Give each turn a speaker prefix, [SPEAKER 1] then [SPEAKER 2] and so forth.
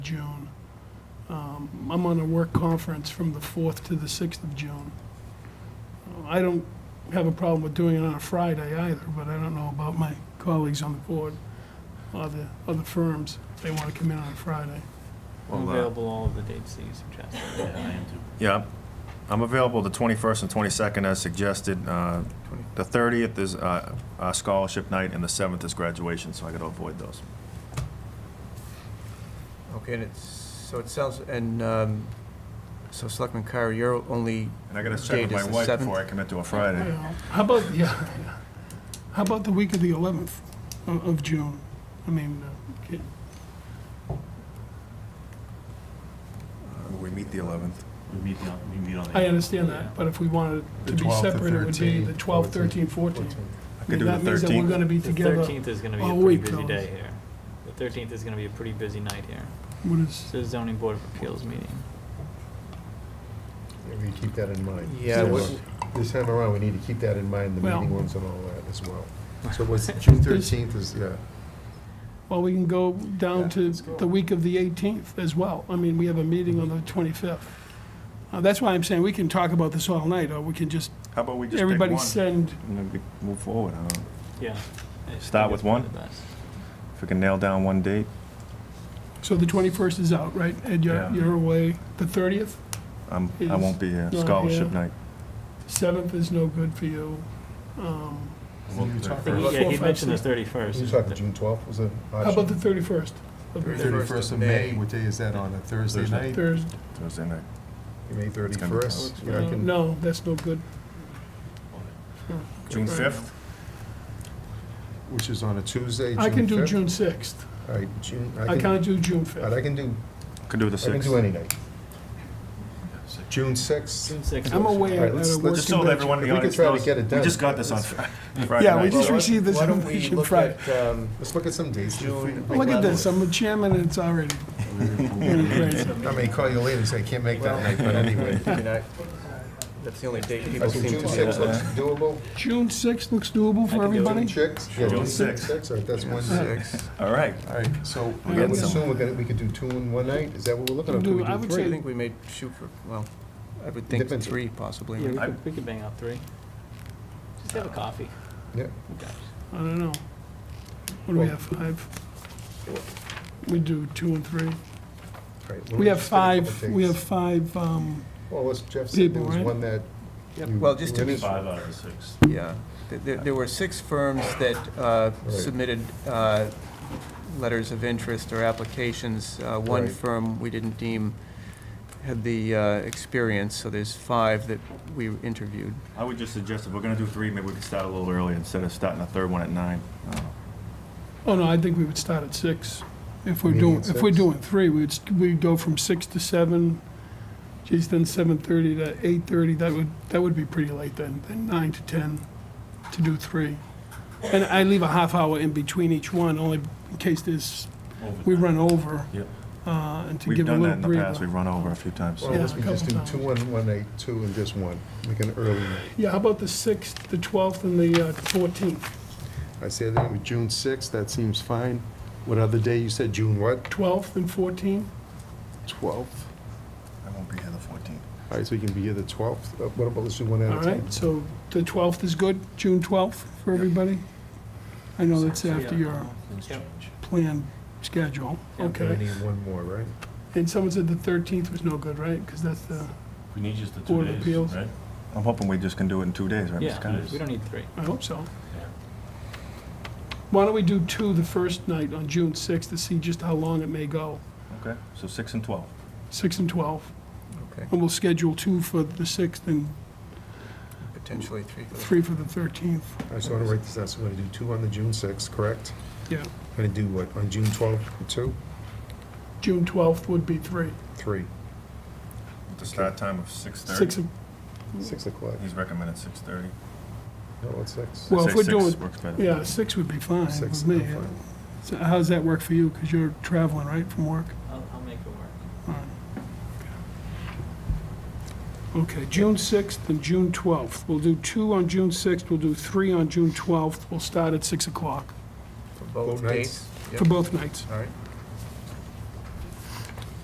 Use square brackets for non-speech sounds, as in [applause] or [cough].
[SPEAKER 1] June. Um, I'm on a work conference from the 4th to the 6th of June. Uh, I don't have a problem with doing it on a Friday either, but I don't know about my colleagues on the board or the other firms, if they want to come in on a Friday.
[SPEAKER 2] I'm
[SPEAKER 3] Well, uh,
[SPEAKER 2] available all of the dates that you suggested.
[SPEAKER 3] Yeah, I'm- I'm available the 21st and 22nd as suggested. Uh, The 30th is uh, uh, scholarship night, and the 7th is graduation, so I gotta avoid those.
[SPEAKER 4] Okay, and it's, so it sounds, and, um, so Selectman Kyra, your only
[SPEAKER 3] And I gotta check
[SPEAKER 4] Date
[SPEAKER 3] with
[SPEAKER 4] is
[SPEAKER 3] my
[SPEAKER 4] the
[SPEAKER 3] wife
[SPEAKER 4] 7th?
[SPEAKER 3] before I commit to a Friday.
[SPEAKER 1] Well, How about, yeah, yeah. how about the week of the 11th of of June? I mean, uh, ca-
[SPEAKER 3] We meet the 11th.
[SPEAKER 5] We meet on, we meet on the.
[SPEAKER 1] I understand that, but if we wanted to
[SPEAKER 6] The
[SPEAKER 1] be
[SPEAKER 6] 12th, the
[SPEAKER 1] separate, it would be the
[SPEAKER 6] 13th,
[SPEAKER 1] 12th, 13th, 14th.
[SPEAKER 3] I
[SPEAKER 1] I
[SPEAKER 3] could
[SPEAKER 1] mean,
[SPEAKER 3] do
[SPEAKER 1] That means that
[SPEAKER 3] the
[SPEAKER 1] we're
[SPEAKER 3] 13th.
[SPEAKER 1] gonna be
[SPEAKER 2] The
[SPEAKER 1] together.
[SPEAKER 2] thirteenth is gonna be
[SPEAKER 1] all
[SPEAKER 2] a pretty
[SPEAKER 1] week,
[SPEAKER 2] busy
[SPEAKER 1] fellas.
[SPEAKER 2] day here. The thirteenth is gonna be a pretty busy night here.
[SPEAKER 1] What is,
[SPEAKER 2] It's a zoning board of appeals meeting.
[SPEAKER 6] Maybe you keep that in mind.
[SPEAKER 4] Yeah,
[SPEAKER 6] So,
[SPEAKER 1] what-
[SPEAKER 6] This time around, we need to keep that in mind, the
[SPEAKER 1] Well-
[SPEAKER 6] meeting ones and all that as
[SPEAKER 1] [laughs]
[SPEAKER 6] well. So what's, June thirteenth is, yeah,
[SPEAKER 1] well, we can go down
[SPEAKER 6] Yeah.
[SPEAKER 1] to the week of the 18th as well. I mean, we have a meeting on the
[SPEAKER 6] Mm-hmm.
[SPEAKER 1] 25th. Uh, That's why I'm saying we can talk about this all night, or we can just,
[SPEAKER 3] How about we just pick one?
[SPEAKER 1] everybody send,
[SPEAKER 3] And then we move forward. I don't know.
[SPEAKER 2] Yeah. I just
[SPEAKER 3] Start
[SPEAKER 2] think
[SPEAKER 3] with
[SPEAKER 2] it's probably
[SPEAKER 3] one?
[SPEAKER 2] the best.
[SPEAKER 3] If we can nail down one date,
[SPEAKER 1] so the 21st is out, right? Ed, you're
[SPEAKER 3] Yeah.
[SPEAKER 1] you're away. The 30th,
[SPEAKER 3] I'm, I
[SPEAKER 1] Is
[SPEAKER 3] won't be here.
[SPEAKER 1] not
[SPEAKER 3] Scholarship
[SPEAKER 1] here.
[SPEAKER 3] night.
[SPEAKER 1] 7th is no good for you. Um,
[SPEAKER 2] I think he-
[SPEAKER 1] First.
[SPEAKER 2] Yeah, he
[SPEAKER 1] Four, five,
[SPEAKER 2] mentioned the
[SPEAKER 1] six.
[SPEAKER 2] thirty-first.
[SPEAKER 6] you talking June twelfth was a
[SPEAKER 1] How about the 31st? of May?
[SPEAKER 4] Thirty-
[SPEAKER 6] Thirty-first of May, what day is that on, a Thursday
[SPEAKER 3] Thursday.
[SPEAKER 6] night?
[SPEAKER 1] Thursday?
[SPEAKER 3] Thursday night.
[SPEAKER 6] May
[SPEAKER 3] gonna be
[SPEAKER 6] thirty-first?
[SPEAKER 1] Uh, No, that's no good.
[SPEAKER 3] June 5th?
[SPEAKER 6] Which is on a Tuesday, June
[SPEAKER 1] I can do
[SPEAKER 6] fifth?
[SPEAKER 1] June 6th.
[SPEAKER 6] All right, June, I
[SPEAKER 1] I
[SPEAKER 6] can, all
[SPEAKER 1] can't do June
[SPEAKER 6] right,
[SPEAKER 1] 5th.
[SPEAKER 6] I can do,
[SPEAKER 3] Could do the
[SPEAKER 6] I can do
[SPEAKER 3] 6th.
[SPEAKER 6] any night. June sixth?
[SPEAKER 2] June sixth.
[SPEAKER 1] I'm away
[SPEAKER 6] All right,
[SPEAKER 1] at
[SPEAKER 6] let's-
[SPEAKER 1] a
[SPEAKER 6] let's
[SPEAKER 1] work
[SPEAKER 3] Just so that everyone in the
[SPEAKER 6] If we could
[SPEAKER 3] audience
[SPEAKER 6] try to
[SPEAKER 3] knows,
[SPEAKER 6] get it
[SPEAKER 3] we
[SPEAKER 6] done.
[SPEAKER 3] just got this on Fri- [laughs] Friday
[SPEAKER 1] Yeah, we
[SPEAKER 3] night.
[SPEAKER 1] just
[SPEAKER 4] Well,
[SPEAKER 1] received this
[SPEAKER 4] Why don't we
[SPEAKER 1] information
[SPEAKER 4] look
[SPEAKER 1] Friday.
[SPEAKER 4] at, um,
[SPEAKER 6] Let's look at some dates.
[SPEAKER 4] June
[SPEAKER 1] Look at this, I'm the chairman and it's already. Great.
[SPEAKER 6] I may call you later and say, I can't make
[SPEAKER 4] well,
[SPEAKER 6] that night,
[SPEAKER 4] [laughs]
[SPEAKER 6] but anyway.
[SPEAKER 4] I mean, I- That's the only date
[SPEAKER 6] I
[SPEAKER 4] people
[SPEAKER 6] think
[SPEAKER 4] seem
[SPEAKER 6] June
[SPEAKER 4] to get.
[SPEAKER 6] sixth looks doable.
[SPEAKER 1] June 6th looks doable
[SPEAKER 2] I
[SPEAKER 1] for
[SPEAKER 2] can do it.
[SPEAKER 1] everybody?
[SPEAKER 6] June sixth? Yeah,
[SPEAKER 3] June
[SPEAKER 6] June
[SPEAKER 3] sixth.
[SPEAKER 6] sixth, all right, that's Wednesday.
[SPEAKER 4] Six.
[SPEAKER 3] All right.
[SPEAKER 6] All right, so
[SPEAKER 3] We
[SPEAKER 6] I
[SPEAKER 3] got
[SPEAKER 6] would
[SPEAKER 3] some.
[SPEAKER 6] assume we're gonna, we could do two in one night, is that what we're looking at? Could
[SPEAKER 1] Do-
[SPEAKER 6] we
[SPEAKER 1] I
[SPEAKER 6] do
[SPEAKER 1] would
[SPEAKER 4] I
[SPEAKER 1] say-
[SPEAKER 6] three?
[SPEAKER 4] think we may shoot for, well, I would think
[SPEAKER 6] Depends.
[SPEAKER 4] three possibly.
[SPEAKER 2] Yeah, we
[SPEAKER 3] I-
[SPEAKER 2] could, we could bang out three. Just have a coffee.
[SPEAKER 6] Yeah.
[SPEAKER 2] Who cares?
[SPEAKER 1] I don't know. What do we have, five? We do two and three.
[SPEAKER 6] All right,
[SPEAKER 1] We
[SPEAKER 6] we'll
[SPEAKER 1] have
[SPEAKER 6] just get a couple
[SPEAKER 1] five, we have
[SPEAKER 6] dates.
[SPEAKER 1] five, um,
[SPEAKER 6] Well, as Jeff said, there
[SPEAKER 1] people,
[SPEAKER 6] was
[SPEAKER 1] right?
[SPEAKER 6] one that. you-
[SPEAKER 4] Well, just to
[SPEAKER 6] you
[SPEAKER 4] be-
[SPEAKER 6] didn't-
[SPEAKER 3] Five out of the six.
[SPEAKER 4] Yeah, Th- there, there were six firms that uh,
[SPEAKER 6] Right.
[SPEAKER 4] submitted uh, letters of interest or applications. Uh, One
[SPEAKER 6] Right.
[SPEAKER 4] firm we didn't deem had the uh, experience, so there's five that we interviewed.
[SPEAKER 3] I would just suggest if we're gonna do three, maybe we could start a little early instead of starting the third one at nine. Uh,
[SPEAKER 1] oh no, I think we would start at six. If we're
[SPEAKER 6] Meeting
[SPEAKER 1] doing,
[SPEAKER 6] at
[SPEAKER 1] if we're
[SPEAKER 6] six?
[SPEAKER 1] doing three, we'd, st- we'd go from six to seven. Geez, then seven thirty to eight thirty, that would, that would be pretty late then, then nine to ten to do three. And I leave a half hour in between each one, only in case there's, we run over.
[SPEAKER 3] Yep.
[SPEAKER 1] Uh, and to
[SPEAKER 3] We've
[SPEAKER 1] give a
[SPEAKER 3] done that
[SPEAKER 1] little
[SPEAKER 3] in the
[SPEAKER 1] breather.
[SPEAKER 3] past, we've run over a few times.
[SPEAKER 6] Well,
[SPEAKER 1] Yeah,
[SPEAKER 6] let's
[SPEAKER 1] a
[SPEAKER 6] we just do
[SPEAKER 1] couple
[SPEAKER 6] two on one night, two and just one, like an early night.
[SPEAKER 1] Yeah, how about the 6th, the 12th, and the uh, 14th?
[SPEAKER 6] I said, that was June sixth, that seems fine. What other day? You said June what?
[SPEAKER 1] 12th and 14th?
[SPEAKER 6] Twelfth.
[SPEAKER 3] I won't be here the fourteenth.
[SPEAKER 6] All right, so you can be here the twelfth. Uh, What about, let's do one
[SPEAKER 1] All
[SPEAKER 6] at a time.
[SPEAKER 1] right, so the 12th is good, June 12th for everybody? I know that's after your
[SPEAKER 2] Yep.
[SPEAKER 1] planned schedule,
[SPEAKER 2] Yeah.
[SPEAKER 6] I
[SPEAKER 1] okay.
[SPEAKER 6] need one more, right?
[SPEAKER 1] And someone said the 13th was no good, right? Because that's the,
[SPEAKER 5] We need just the two
[SPEAKER 1] Board of
[SPEAKER 5] days,
[SPEAKER 1] Appeals.
[SPEAKER 5] right?
[SPEAKER 3] I'm hoping we just can do it in two days, right? Mr.
[SPEAKER 2] Yeah,
[SPEAKER 3] Connors?
[SPEAKER 2] we don't need three.
[SPEAKER 1] I hope so.
[SPEAKER 5] Yeah.
[SPEAKER 1] Why don't we do two the first night on June 6th to see just how long it may go?
[SPEAKER 3] Okay, so six and twelve.
[SPEAKER 1] 6 and 12.
[SPEAKER 4] Okay,
[SPEAKER 1] And we'll schedule two for the 6th and
[SPEAKER 4] potentially three. for the-
[SPEAKER 1] three for the 13th.
[SPEAKER 6] All right, so I'm gonna write this down. So we're gonna do two on the June sixth, correct?
[SPEAKER 1] Yeah,
[SPEAKER 6] I'm gonna do what, on June twelfth, two,
[SPEAKER 1] June 12th would be three.
[SPEAKER 6] three,
[SPEAKER 3] With the start time of six
[SPEAKER 1] 6
[SPEAKER 3] thirty.
[SPEAKER 1] of
[SPEAKER 6] six o'clock?
[SPEAKER 3] He's recommended six thirty.
[SPEAKER 6] No, it's six.
[SPEAKER 1] Well, if we're doing-
[SPEAKER 3] Works better.
[SPEAKER 1] Yeah, six would be fine
[SPEAKER 6] Six,
[SPEAKER 1] with
[SPEAKER 6] I'm
[SPEAKER 1] me.
[SPEAKER 6] fine.
[SPEAKER 1] So how does that work for you? Because you're traveling, right, from work?
[SPEAKER 2] I'll, I'll make it work.
[SPEAKER 1] All right. Okay, June 6th and June 12th. We'll do two on June 6th, we'll do three on June 12th. We'll start at 6 o'clock
[SPEAKER 4] For
[SPEAKER 6] Both
[SPEAKER 4] both
[SPEAKER 6] nights?
[SPEAKER 4] dates?
[SPEAKER 1] for
[SPEAKER 4] Yep.
[SPEAKER 1] both nights.
[SPEAKER 4] All right,